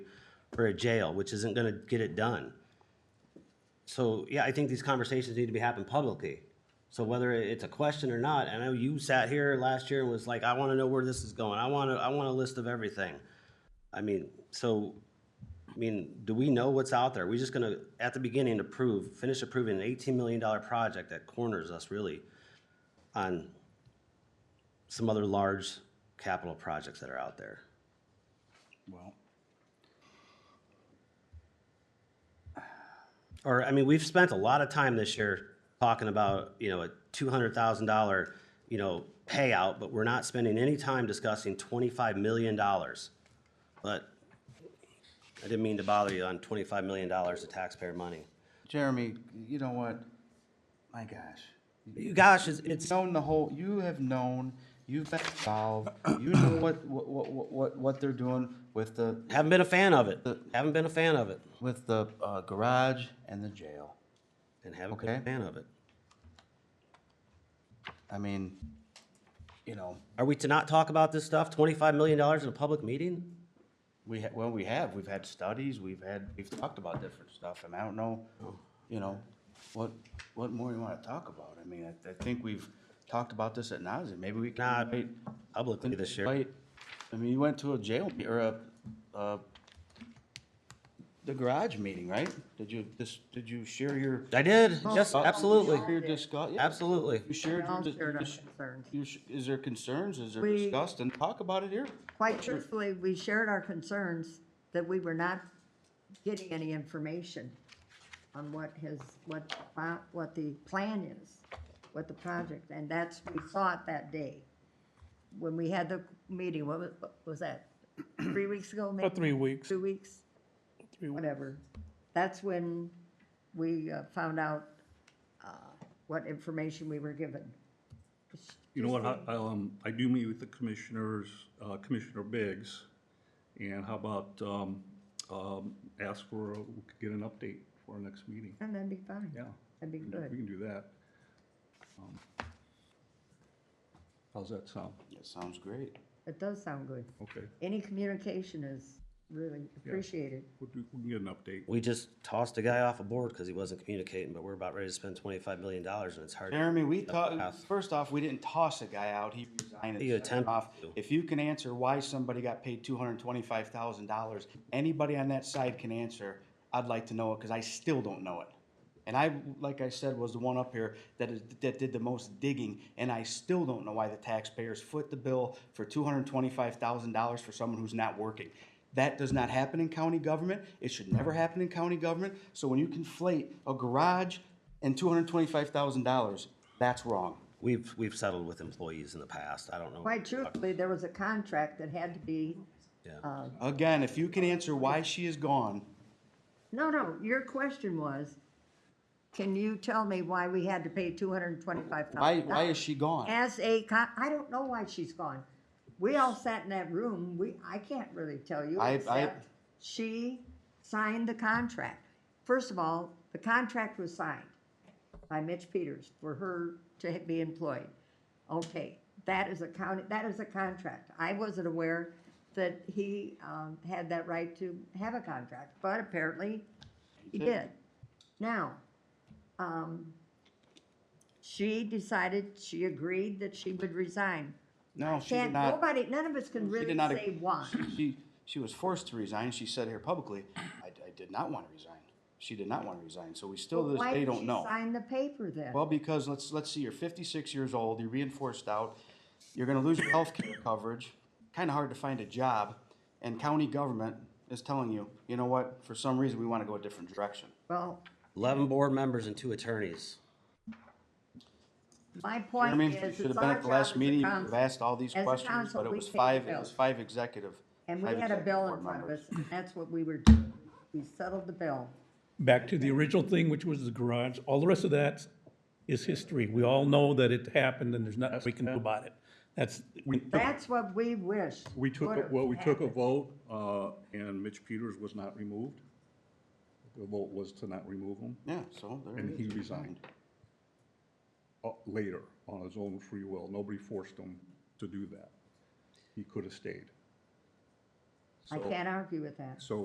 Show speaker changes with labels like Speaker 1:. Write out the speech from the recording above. Speaker 1: or a jail, which isn't gonna get it done. So, yeah, I think these conversations need to be happening publicly. So whether it's a question or not, I know you sat here last year and was like, I wanna know where this is going, I wanna, I want a list of everything. I mean, so, I mean, do we know what's out there? We're just gonna, at the beginning, approve, finish approving an eighteen million dollar project that corners us really on some other large capital projects that are out there.
Speaker 2: Well,
Speaker 1: Or, I mean, we've spent a lot of time this year talking about, you know, a two hundred thousand dollar, you know, payout, but we're not spending any time discussing twenty-five million dollars. But I didn't mean to bother you on twenty-five million dollars of taxpayer money.
Speaker 2: Jeremy, you know what? My gosh.
Speaker 1: You- Gosh, it's, it's,
Speaker 2: It's known the whole, you have known, you've been involved, you know what, what, what, what, what they're doing with the,
Speaker 1: haven't been a fan of it, haven't been a fan of it,
Speaker 2: with the, uh, garage and the jail.
Speaker 1: and haven't been a
Speaker 2: Okay.
Speaker 1: fan of it.
Speaker 2: I mean, you know,
Speaker 1: Are we to not talk about this stuff, twenty-five million dollars in a public meeting?
Speaker 2: we, ha- well, we have, we've had studies, we've had, we've talked about different stuff, and I don't know, you know, what, what more you wanna talk about? I mean, I, I think we've talked about this at nauseam. Maybe we
Speaker 1: Nah,
Speaker 2: can invite
Speaker 1: Publicly this year.
Speaker 2: Right. I mean, you went to a jail, me- or a, uh, the garage meeting, right? Did you, this, did you share your?
Speaker 1: I did, yes,
Speaker 2: Uh,
Speaker 1: absolutely,
Speaker 2: Your discuss, yeah.
Speaker 1: absolutely.
Speaker 2: You shared,
Speaker 3: We
Speaker 2: your
Speaker 3: all
Speaker 2: dis-
Speaker 3: shared our
Speaker 2: you sh-
Speaker 3: concerns.
Speaker 2: you sh- is there concerns, is there
Speaker 3: We-
Speaker 2: discussed, and talk about it here?
Speaker 3: Quite truthfully, we shared our concerns that we were not getting any information on what his, what, pro- what the plan is, what the project, and that's, we saw it that day. When we had the meeting, what was, what was that? Three weeks ago, maybe?
Speaker 4: About three weeks.
Speaker 3: Two weeks?
Speaker 4: Three weeks.
Speaker 3: Whatever. That's when we uh, found out uh, what information we were given.
Speaker 5: You know what, I- I'll, um, I do meet with the commissioners, uh, Commissioner Biggs, and how about, um, um, ask for, a- we could get an update for our next meeting,
Speaker 3: And that'd be fine.
Speaker 5: yeah.
Speaker 3: That'd be
Speaker 5: we can do-
Speaker 3: good.
Speaker 5: We can do that. Um, How's that sound?
Speaker 2: That sounds great.
Speaker 3: It does sound good.
Speaker 5: Okay,
Speaker 3: Any communication is really appreciated.
Speaker 5: we'll do, we can get an update.
Speaker 1: We just tossed a guy off a board because he wasn't communicating, but we're about ready to spend twenty-five million dollars and it's hard.
Speaker 2: Jeremy, we thought, first off, we didn't toss a guy out, he resigned. and
Speaker 1: He
Speaker 2: stepped
Speaker 1: attempted
Speaker 2: off.
Speaker 1: to.
Speaker 2: If you can answer why somebody got paid two hundred and twenty-five thousand dollars, anybody on that side can answer, I'd like to know it, cause I still don't know it. And I, like I said, was the one up here that is, that did the most digging, and I still don't know why the taxpayers foot the bill for two hundred and twenty-five thousand dollars for someone who's not working. That does not happen in county government, it should never happen in county government, so when you conflate a garage and two hundred and twenty-five thousand dollars, that's wrong.
Speaker 1: We've, we've settled with employees in the past. I don't know.
Speaker 3: Quite truthfully, there was a contract that had to be,
Speaker 1: Yeah.
Speaker 3: uh,
Speaker 2: Again, if you can answer why she is gone,
Speaker 3: no, no, your question was, can you tell me why we had to pay two hundred and twenty-five
Speaker 2: why,
Speaker 3: thousand?
Speaker 2: why is she gone?
Speaker 3: As a con, I don't know why she's gone. We all sat in that room, we, I can't really tell you.
Speaker 2: I- I-
Speaker 3: except She signed the contract. First of all, the contract was signed by Mitch Peters for her to be employed. Okay, that is a county, that is a contract. I wasn't aware that he, um, had that right to have a contract, but apparently he did. Now, um, she decided, she agreed that she would resign.
Speaker 2: No, she did
Speaker 3: Can't,
Speaker 2: not.
Speaker 3: nobody, none of us can
Speaker 2: She
Speaker 3: really
Speaker 2: did not.
Speaker 3: say why.
Speaker 2: She, she was forced to resign. She said here publicly, I, I did not want to resign. She did not want to resign. So we still to this
Speaker 3: Why
Speaker 2: day
Speaker 3: did
Speaker 2: don't
Speaker 3: she
Speaker 2: know.
Speaker 3: Sign the paper then.
Speaker 2: Well, because let's, let's see, you're fifty-six years old, you're reinforced out, you're gonna lose your healthcare coverage, kinda hard to find a job, and county government is telling you, you know what, for some reason, we wanna go a different direction.
Speaker 3: Well,
Speaker 1: Eleven board members and two attorneys.
Speaker 3: my
Speaker 2: I
Speaker 3: point
Speaker 2: mean, you
Speaker 3: is,
Speaker 2: should have
Speaker 3: it's
Speaker 2: been
Speaker 3: our
Speaker 2: at
Speaker 3: job
Speaker 2: the
Speaker 3: as
Speaker 2: last meeting, you
Speaker 3: a
Speaker 2: could have
Speaker 3: council.
Speaker 2: asked all these
Speaker 3: as a
Speaker 2: questions,
Speaker 3: council,
Speaker 2: but it
Speaker 3: we
Speaker 2: was
Speaker 3: pay the
Speaker 2: five, it
Speaker 3: bills.
Speaker 2: was five executive.
Speaker 3: And we
Speaker 2: five
Speaker 3: had a
Speaker 2: executive
Speaker 3: bill
Speaker 2: board
Speaker 3: in front of us,
Speaker 2: members.
Speaker 3: and that's what we were doing. We settled the bill.
Speaker 4: Back to the original thing, which was the garage. All the rest of that is history. We all know that it happened and there's nothing we can do about it. That's,
Speaker 5: We took,
Speaker 3: That's what we wished.
Speaker 5: we took, a-
Speaker 3: would've
Speaker 5: well, we took a
Speaker 3: happened.
Speaker 5: vote, uh, and Mitch Peters was not removed. The vote was to not remove him,
Speaker 2: Yeah, so there
Speaker 5: and
Speaker 2: it
Speaker 5: he
Speaker 2: is.
Speaker 5: resigned. Uh, later, on his own free will, nobody forced him to do that. He could have stayed.
Speaker 3: I can't argue with that.
Speaker 5: So